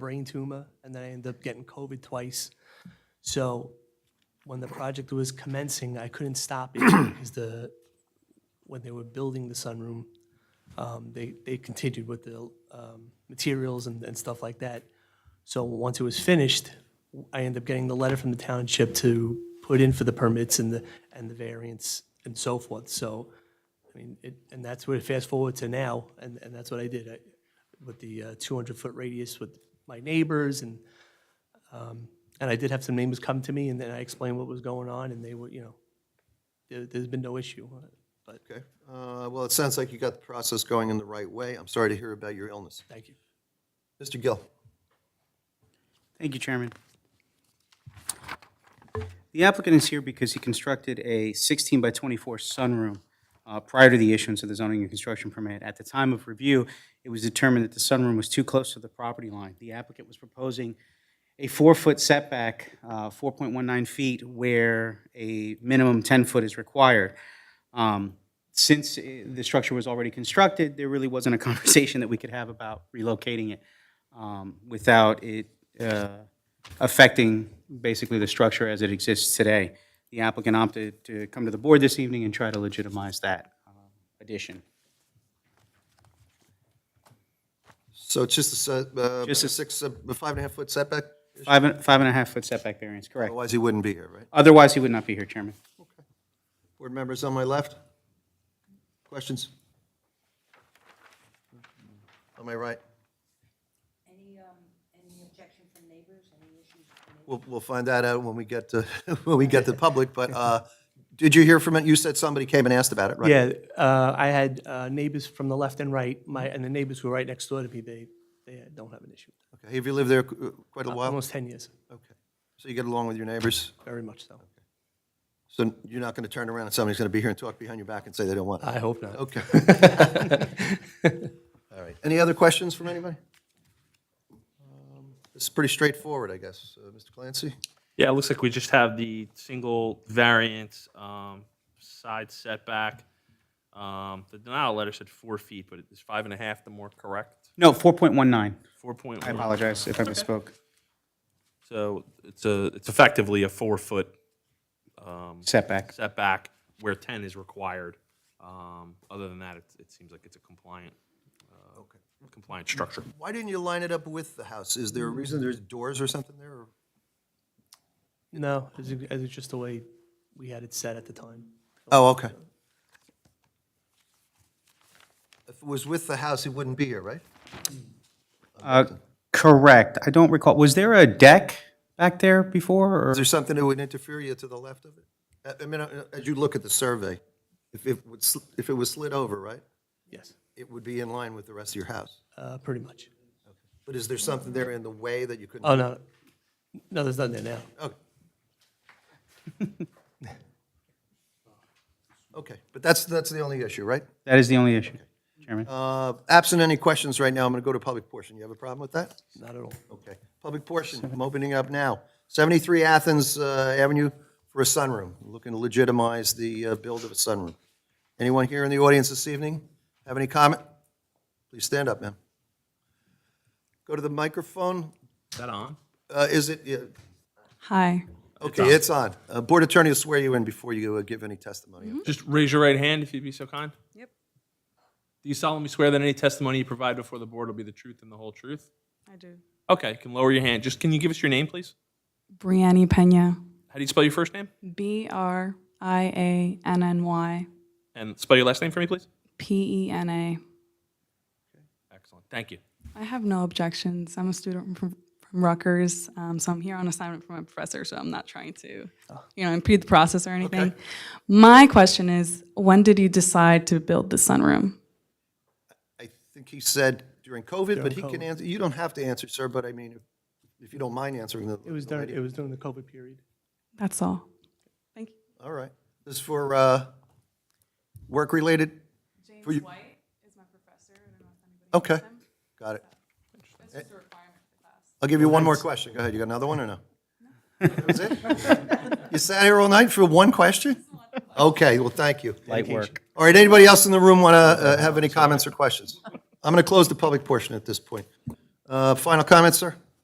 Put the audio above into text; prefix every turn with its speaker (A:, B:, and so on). A: brain tumor, and then I ended up getting COVID twice. So when the project was commencing, I couldn't stop it because the, when they were building the sunroom, um, they, they continued with the um, materials and, and stuff like that. So once it was finished, I ended up getting the letter from the township to put in for the permits and the, and the variance and so forth. So, I mean, it, and that's where fast forward to now, and, and that's what I did. I, with the uh, 200-foot radius with my neighbors, and, um, and I did have some neighbors come to me, and then I explained what was going on, and they were, you know, there, there's been no issue, uh, but
B: Okay, Uh, well, it sounds like you got the process going in the right way. I'm sorry to hear about your illness.
A: thank you.
B: Mr. Gill?
C: Thank you, Chairman. The applicant is here because he constructed a 16 by 24 sunroom uh, prior to the issuance of the zoning and construction permit. At the time of review, it was determined that the sunroom was too close to the property line. The applicant was proposing a four-foot setback, uh, 4.19 feet, where a minimum 10-foot is required. Um, Since uh, the structure was already constructed, there really wasn't a conversation that we could have about relocating it um, without it uh, affecting basically the structure as it exists today. The applicant opted to come to the board this evening and try to legitimize that um, addition.
B: So it's just a, set- uh,
C: Just a-
B: six, uh, five and a half foot setback?
C: Five and, five and a half foot setback variance, correct.
B: Otherwise, he wouldn't be here, right?
C: Otherwise, he would not be here, Chairman.
B: Board members on my left? Questions? On my right?
D: Any, um, any objection from neighbors, any issues from neighbors?
B: We'll, we'll find that out when we get to, when we get to public, but uh, did you hear from it? You said somebody came and asked about it, right?
A: Yeah, uh, I had uh, neighbors from the left and right, my, and the neighbors who were right next door to me, they, they don't have an issue.
B: Okay, have you lived there uh, quite a while?
A: Almost 10 years,
B: Okay. So you get along with your neighbors?
A: very much so.
B: So you're not going to turn around and somebody's going to be here and talk behind your back and say they don't want it?
A: I hope not.
B: Okay. All right. Any other questions from anybody? Um, This is pretty straightforward, I guess. Uh, Mr. Clancy?
E: Yeah, it looks like we just have the single variant um, side setback. Um, the denial letter said four feet, but it's five and a half, the more correct,
C: No, 4.19.
E: four point
C: I
E: one.
C: apologize if I misspoke.
E: So it's a, it's effectively a four-foot
C: Setback.
E: setback where ten is required. Um, Other than that, it, it seems like it's a compliant, uh, compliant structure.
B: Why didn't you line it up with the house? Is there a reason there's doors or something there? or-
A: No, it was- it was just the way we had it set at the time.
B: Oh, okay. If it was with the house, it wouldn't be here, right?
C: Uh, Correct. I don't recall, was there a deck back there before, or?
B: Is there something that would interfere you to the left of it? I- I mean, uh, as you look at the survey, if it would, sl- if it was slid over, right,
A: Yes,
B: it would be in line with the rest of your house.
A: uh, pretty much.
B: But is there something there in the way that you couldn't?
A: Oh, no, no, there's nothing there now.
B: Okay. Okay, but that's, that's the only issue, right?
C: That is the only issue, Chairman.
B: Uh, Absent any questions right now, I'm going to go to public portion. You have a problem with that?
A: Not at all.
B: Okay, public portion, I'm opening up now. 73 Athens uh, Avenue for a sunroom, looking to legitimize the uh, build of a sunroom. Anyone here in the audience this evening have any comment? Please stand up, ma'am. Go to the microphone.
E: Is that on?
B: Uh, Is it, yeah,
F: Hi.
B: Okay, it's on. Uh, Board attorney will swear you in before you uh, give any testimony.
E: Just raise your right hand if you'd be so kind.
F: Yep.
E: Do you solemnly swear that any testimony you provide before the board will be the truth and the whole truth?
F: I do.
E: Okay, you can lower your hand. Just can you give us your name, please?
F: Brianni Pena.
E: How do you spell your first name?
F: B R I A N N Y
E: And spell your last name for me, please?
F: P E N A.
E: Excellent. Thank you.
F: I have no objections. I'm a student from, from Rutgers, um, so I'm here on assignment from my professor, so I'm not trying to,
B: Oh.
F: you know, impede the process or anything. My question is when did you decide to build the sunroom?
B: I think he said during COVID, but
A: During
B: he can
A: COVID.
B: answer, you don't have to answer, sir, but I mean, if- if you don't mind answering the.
A: It was during, it was during the COVID period.
F: That's all. Thank you.
B: All right. This is for uh, work-related?
F: James
B: you-
F: White is my professor. I don't know if anybody
B: Okay, Eh. got it.
F: That's just a requirement for class.
B: I'll give you one more question. Go ahead, you got another one or no? That was it? You sat here all night for one question? Okay, well, thank you.
C: Light work.
B: All right, anybody else in the room want to have any comments or questions? I'm going to close the public portion at this point. Uh, Final comments, sir?